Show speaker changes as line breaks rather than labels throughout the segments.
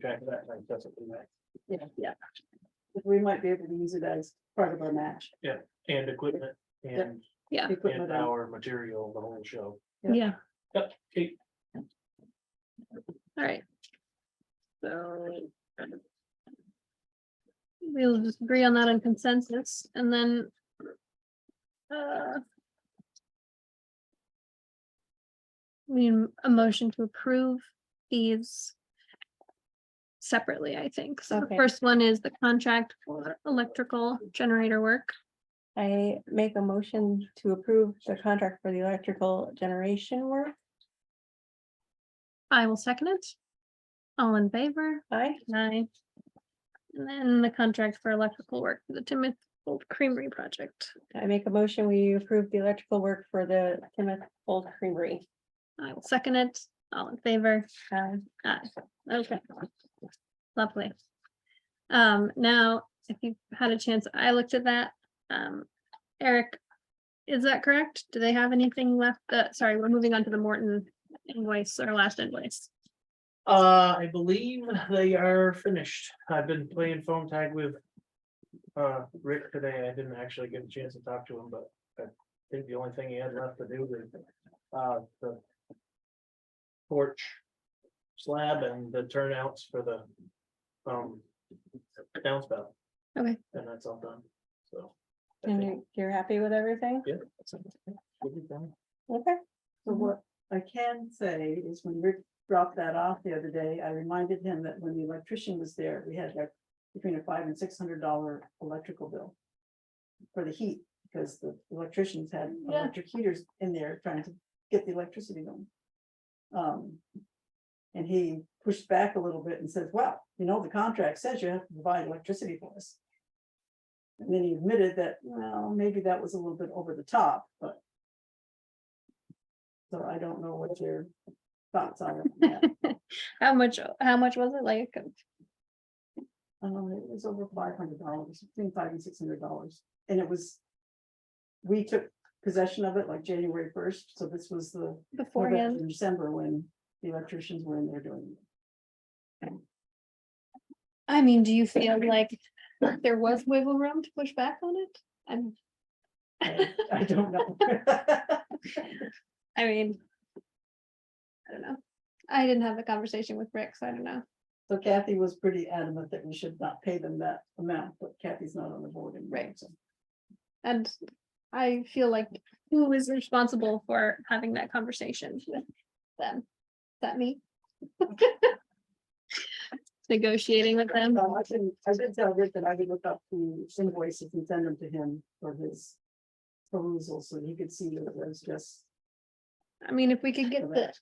track of that, like, that's what we like.
Yeah, yeah. We might be able to use it as part of our match.
And equipment and,
Yeah.
Equipment
and
and-
our material, the whole show.
Yeah.
Yeah,
Yep, okay,
all right. So. We'll just agree on that on consensus and then. uh, We, need a motion to approve these. Separately, I think. So the
Okay.
first one is the contract for electrical generator work.
I make a motion to approve the contract for the electrical generation work.
I will second it. All in favor?
Aye.
Aye. And then the contract for electrical work, for the Timoth Old Creamery project.
I make a motion, we approve the electrical work for the Timoth Old Creamery.
I will second it. All in favor?
Aye.
Aye. Okay. Lovely. Um, now, if you had a chance, I looked at that. Um, Eric, is that correct? Do they have anything left? Uh, sorry, we're moving on to the Morton invoice, our last invoice.
Uh, I believe they are finished. I've been playing phone tag with. Uh, Rick today. I didn't actually get a chance to talk to him, but I think the only thing he had left to do was, uh, the. Porch. Slab and the turnouts for the. Um. Downspout.
Okay.
And that's all done, so. I
And
think-
you- you're happy with everything?
Yeah. that's it. We'll be done.
Okay.
So what I can say is when Rick dropped that off the other day, I reminded him that when the electrician was there, we had like between a five and six hundred dollar electrical bill. For the heat, because the electricians had
Yeah.
electric heaters in there trying to get the electricity going. Um. And he pushed back a little bit and says, well, you know, the contract says you have to provide electricity for us. And then he admitted that, well, maybe that was a little bit over the top, but so I don't know what your thoughts are. on that.
How much, how much was it like?
Um, it was over five hundred dollars, between five and six hundred dollars, and it was. We took possession of it like January first, so this was the. November,
Beforehand?
December when the electricians were in there doing it.
I mean, do you feel like there was wiggle room to push back on it? I'm,
I- I don't know.
I mean. I don't know. I didn't have the conversation with Rick, so I don't know.
So Kathy was pretty adamant that we should not pay them that amount, but Kathy's not on the board anymore.
Right.
so.
And I feel like who is responsible for having that conversation with them? Is that me? Negotiating with them.
No, Uh, I didn't, I did tell Rick that I would look up the invoices and send them to him for his perusal, so he could see that it was just.
I mean, if we could get the
Correct.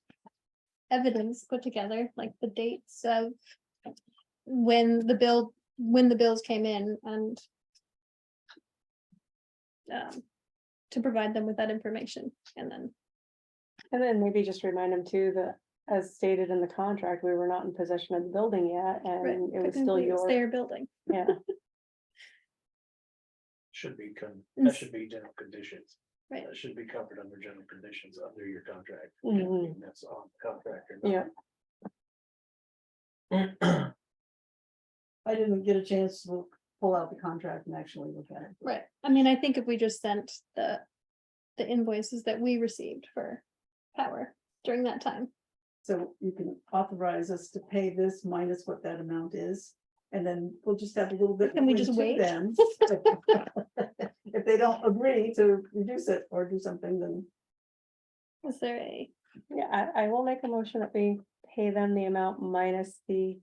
evidence put together, like the dates of when the bill, when the bills came in and um, to provide them with that information and then,
And then maybe just remind them too that as stated in the contract, we were not in possession of the building yet and it
Right,
was still
technically, it's
yours.
their building.
Yeah.
Should be, con-
Ins-
that should be general conditions.
Mm. Right.
That should be covered under general conditions under your contract.
Mm-hmm.
Mhm.
And That's on the contract. or
Yeah.
not.
I didn't get a chance to look- pull out the contract and actually look at it.
Right, I mean, I think if we just sent the, the invoices that we received for power during that time.
So you can authorize us to pay this minus what that amount is, and then we'll just have a little bit.
Can we
between
just
two
wait?
then. If they don't agree to reduce it or do something, then
Is there a,
Yeah, I, I will make a motion that we pay them the amount minus the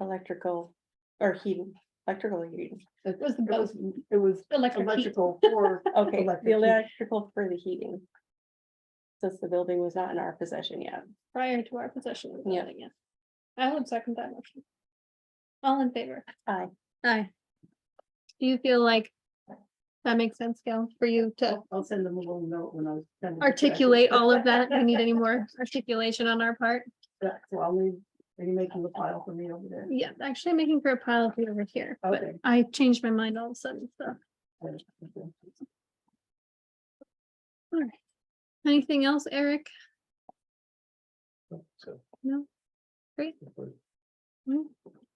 electrical or heating, electrical heating.
it
was the
it
both
was, it was
electric heat?
electrical for
Okay,
Electric
the
heat.
electrical for the heating. Since the building was not in our possession yet.
prior to our possession of the
Yeah.
building, yeah. I would second that motion. All in favor?
Aye.
Aye. Do you feel like that makes sense, Gail, for you to
I'll- I'll send them a little note when Oh, I. was sending it back.
articulate all of that? Do We need any more articulation on our part?
Yeah, So I'll leave, are you making the file for me over there?
Yeah, actually I'm making for a pile of it over here, but
Okay.
I changed my mind all of a sudden, so. Anything else, Eric?
So.
No. Great.
If we're-
Mm.